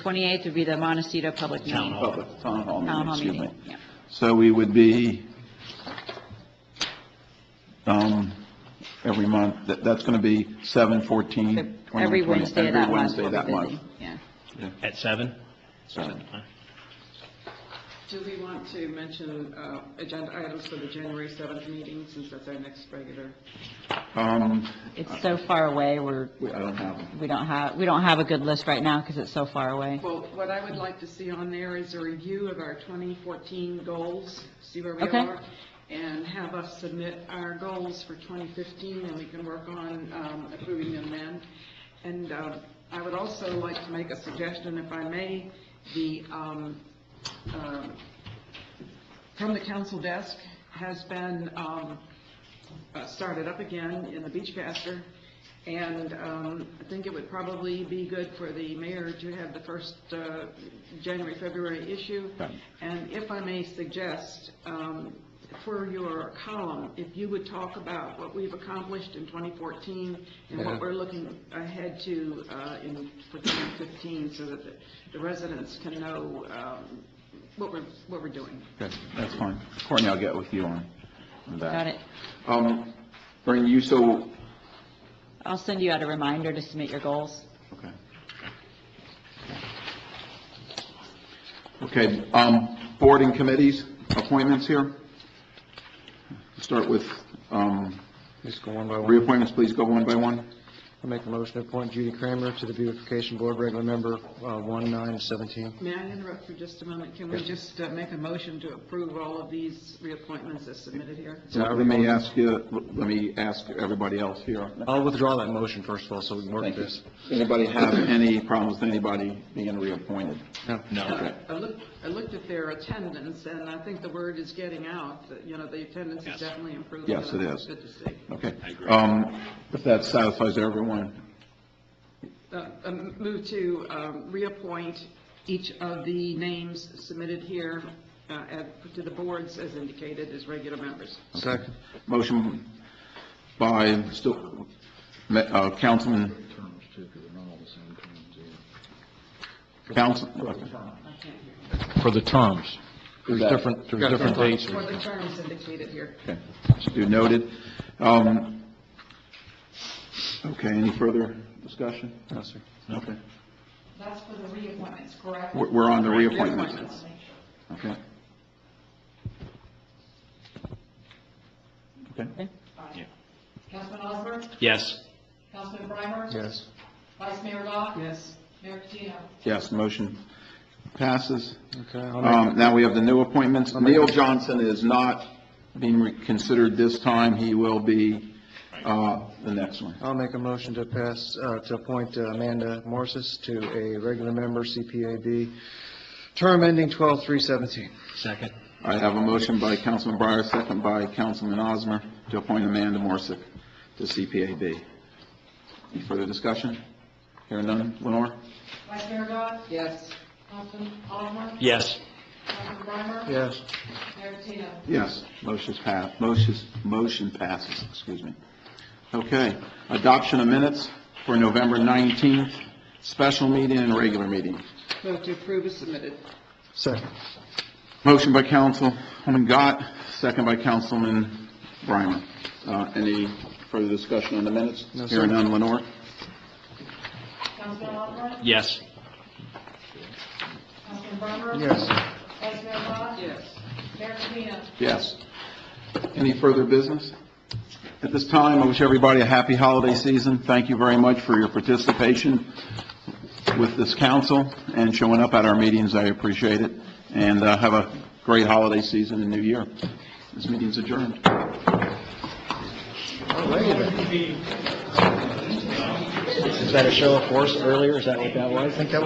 28th would be the Montecito Public Meeting. Town hall. Public, town hall Town meeting, hall excuse me. meeting, yeah. So we would be, um, every month, that, that's going to be 7, 14, 21, Every 20 Wednesday of that Every month. Wednesday we'll that be busy. month. Yeah. At seven? Seven. Do we want to mention uh, agenda items for the January 7th meeting, since that's our next regular? Um, It's so far away, we're, we- I don't have them. we don't have, we don't have a good list right now because it's so far away. Well, what I would like to see on there is a review of our 2014 goals, see where we Okay. are, and have us submit our goals for 2015, and we can work on um, approving them then. And um, I would also like to make a suggestion, if I may, the um, um, from the council desk has been um, uh, started up again in the Beachcaster, and um, I think it would probably be good for the mayor to have the first uh, January, February issue. Okay. And if I may suggest, um, for your column, if you would talk about what we've accomplished in 2014 and what we're looking ahead to uh, in, for 2015, so that the- the residents can know um, what we're, what we're doing. Okay, that's fine. Courtney, I'll get with you on that. Got it. Um, Bernie, you so, I'll send you out a reminder to submit your goals. okay. Okay, um, board and committees, appointments here. Start with, um, Just go one by one. reappointments, please go one by one. I make a motion to appoint Judy Kramer to the Beautification Board, regular member, uh, 1917. May I interrupt for just a moment? Can we just uh, make a motion to approve all of these reappointments as submitted here? Let me ask you, let me ask everybody else here. I'll withdraw that motion, first of all, so we can work Thank you. this. Anybody have any problems with anybody being reappointed? No. No. Uh, I looked, I looked at their attendance, and I think the word is getting out, that, you know, the attendance is Yes. definitely improving. Yes, and it that's is. Good to see. Okay. I agree. Um, if that satisfies everyone, Uh, um, Move to um, reappoint each of the names submitted here uh, at- to the boards as indicated as regular members. Second. Motion by still, Ma- uh, Councilman, terms too, because they're not all the same terms either. Council, For the terms. There's Exactly. different, there's different dates. For the terms indicated here. okay, should be noted. Um, okay, any further discussion? No, sir. Okay, That's for the reappointments, correct? we're, we're on the reappointments. Reappointments. Okay. Okay, Yeah. Councilman Osmer? Yes. Councilman Breimer? Yes. Vice Mayor Dodd? Yes. Mayor Patino? yes, motion passes. Okay, I'll make- Um, Now we have the new appointments. Neil Johnson is not being reconsidered this time. He will be uh, the next one. I'll make a motion to pass, uh, to appoint uh, Amanda Morses to a regular member, CPAB, term ending 12/3/17. Second? I have a motion by Councilman Breyer, second by Councilman Osmer, to appoint Amanda Morsick to CPAB. Any further discussion? Hearing none. Lenore? Vice Mayor Dodd? Yes. Councilman Osmer? Yes. Councilman Breimer? Yes. Mayor Patino? Yes. Motion's passed, motion's, motion passes, excuse me. Okay, adoption of minutes for November 19th, special meeting and regular meeting. Vote to approve is submitted. Second. Motion by Councilwoman Gott, second by Councilman Brimer. Uh, Any further discussion on the minutes? No, sir. Hearing none, Lenore? Councilman Osmer? Yes. Councilman Breimer? Yes. Vice Mayor Dodd? Yes. Mayor Patino? Yes. Any further business? At this time, I wish everybody a happy holiday season. Thank you very much for your participation with this council and showing up at our meetings. I appreciate it. And uh, have a great holiday season and new year. This meeting's adjourned. Is that a show of force earlier? Is that what that was? I think that